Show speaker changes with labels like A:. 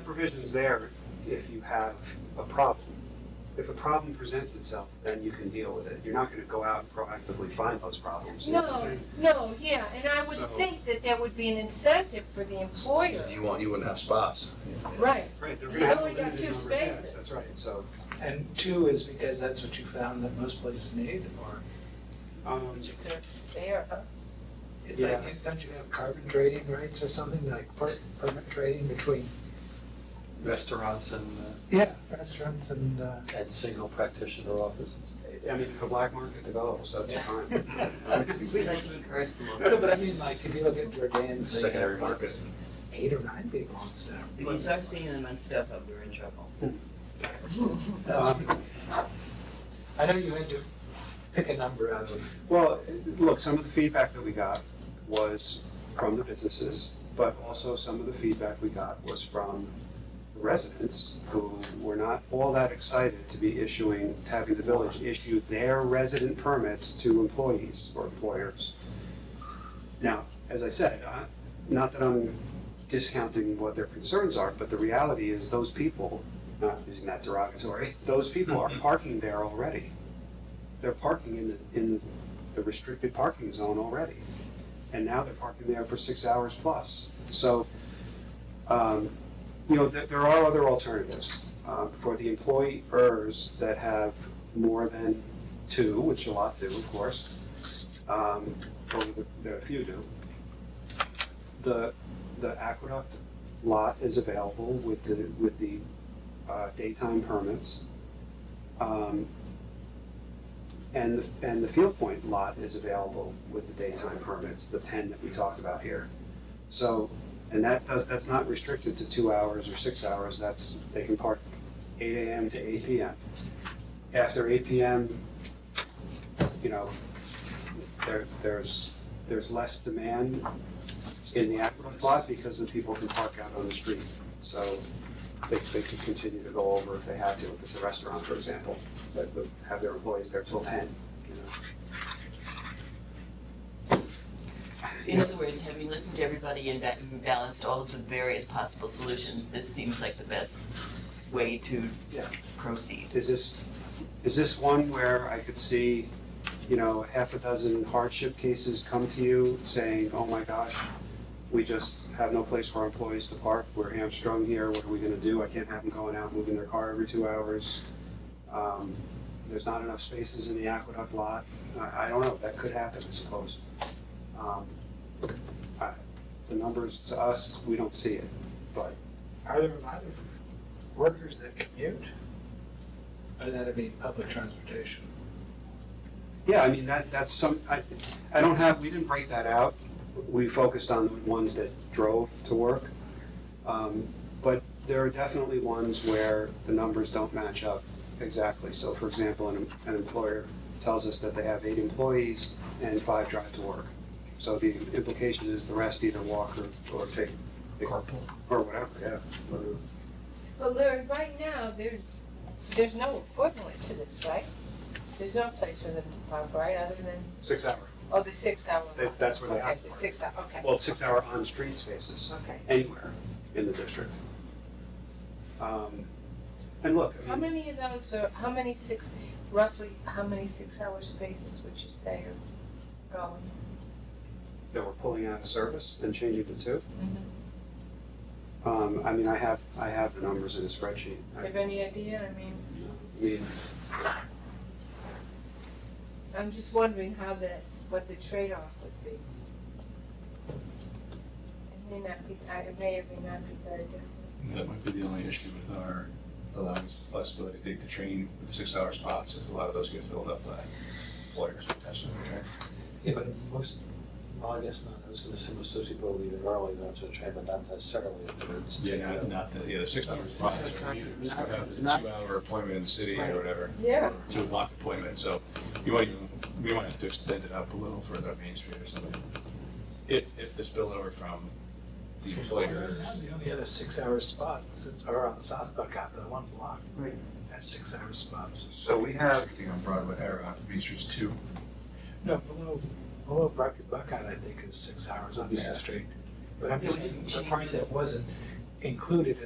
A: provision's there if you have a problem. If a problem presents itself, then you can deal with it. You're not gonna go out and proactively find those problems. you know what I'm
B: No,
A: saying?
B: no, yeah, and I would
A: So-
B: think that there would be an incentive for the employer,
C: You won't, you wouldn't have spots.
B: right?
A: Right, they're
B: You
A: gonna have a
B: only got
A: limited
B: two
A: number of tasks,
B: spaces.
A: that's right, so,
D: And two is because that's what you found that most places need, or
A: um,
B: They're spare, huh?
D: it's like,
A: Yeah.
D: don't you have carbon trading rights or something, like per- permit trading between,
E: restaurants and, uh,
D: yeah, restaurants and, uh,
E: and single practitioner offices.
A: I mean, if the black market develops, that's
D: Yeah.
A: fine.
F: We like to encourage the market.
D: no, but I mean, like, if you look at Jordan's, they
C: Secondary
D: have like
C: market.
D: eight or nine people on staff.
F: If you start seeing them on stuff up, we're in trouble.
D: Um, I know you had to pick a number out of,
A: Well, look, some of the feedback that we got was from the businesses, but also some of the feedback we got was from residents who were not all that excited to be issuing, having the village issue their resident permits to employees or employers. Now, as I said, I- not that I'm discounting what their concerns are, but the reality is those people, not using that derogatory, those people are parking there already. They're parking in the, in the the restricted parking zone already. And now they're parking there for six hours plus. So, um, you know, there, there are other alternatives, uh, for the employers that have more than two, which a lot do, of course. Um, or there are a few do. The, the aqueduct lot is available with the, with the, uh, daytime permits. Um, and, and the Field Point lot is available with the daytime permits, the ten that we talked about here. So, and that does, that's not restricted to two hours or six hours, that's, they can park eight AM to eight PM. After eight PM, you know, there, there's, there's less demand in the aqueduct lot because the people can park out on the street. So they, they could continue to go over if they had to, if it's a restaurant, for example that would have their employees there till ten, you know.
F: In other words, having listened to everybody and ba- and balanced all of the various possible solutions, this seems like the best way to
A: Yeah.
F: proceed.
A: Is this, is this one where I could see, you know, half a dozen hardship cases come to you saying, oh my gosh, we just have no place for our employees to park, we're hamstrung here, what are we gonna do? I can't have them going out moving their car every two hours. Um, There's not enough spaces in the aqueduct lot, I, I don't know, that could happen, I suppose. Um, I- The numbers to us, we don't see it, but
D: are there a lot of workers that commute? Or that'd be public transportation?
A: Yeah, I mean, that, that's some, I, I don't have, we didn't break that out. We focused on the ones that drove to work. Um, But there are definitely ones where the numbers don't match up exactly. So for example, an, an employer tells us that they have eight employees and five drive to work. So the implication is the rest either walk or, or take. Carpool. Or whatever, yeah. whatever.
B: Well, Larry, right now, there's, there's no equivalent to this, right? There's no place for them to park, right, other than,
A: Six hour.
B: oh, the six-hour
A: That-
B: lots.
A: that's where they
B: Okay,
A: have to
B: The
A: park.
B: six-hour, okay,
A: Well, six hour on-street spaces.
B: okay.
A: anywhere in the district. Um, And look, I
B: How
A: mean,
B: many of those are, how many six, roughly, how many six-hour spaces would you say are going?
A: that we're pulling out of service and changing to two. Um, I mean, I have, I have the numbers in a spreadsheet.
B: Do you have
A: I
B: any idea? I mean,
A: mean,
B: I'm just wondering how that, what the trade-off would be. It may not be, I- it may or may not be very different.
G: That might be the only issue with our allowing us flexibility to take the train with six-hour spots, if a lot of those get filled up by employers potentially, okay?
E: Yeah, but most, well, I guess not, I was gonna say most of those people are leaving early, not to train, but not necessarily if they're.
G: Yeah, not, not the, yeah, the six-hour spots are used, you have a two-hour appointment in the city or whatever,
B: Yeah.
G: two o'clock appointment, so you might even, we might have to extend it up a little further up Main Street or something. If, if the spillover from the employers,
D: The only other six-hour spots is- are on South Buckout, the one block.
F: Right.
D: Has six-hour spots.
A: so we have,
G: everything on Broadway, or on Main Street's two,
D: No, below, below Bucket Buckout, I think is six hours on the
G: Yeah.
D: street. But I'm
F: Yeah,
D: just
F: we didn't
D: the
F: change
D: part
F: it.
D: that wasn't included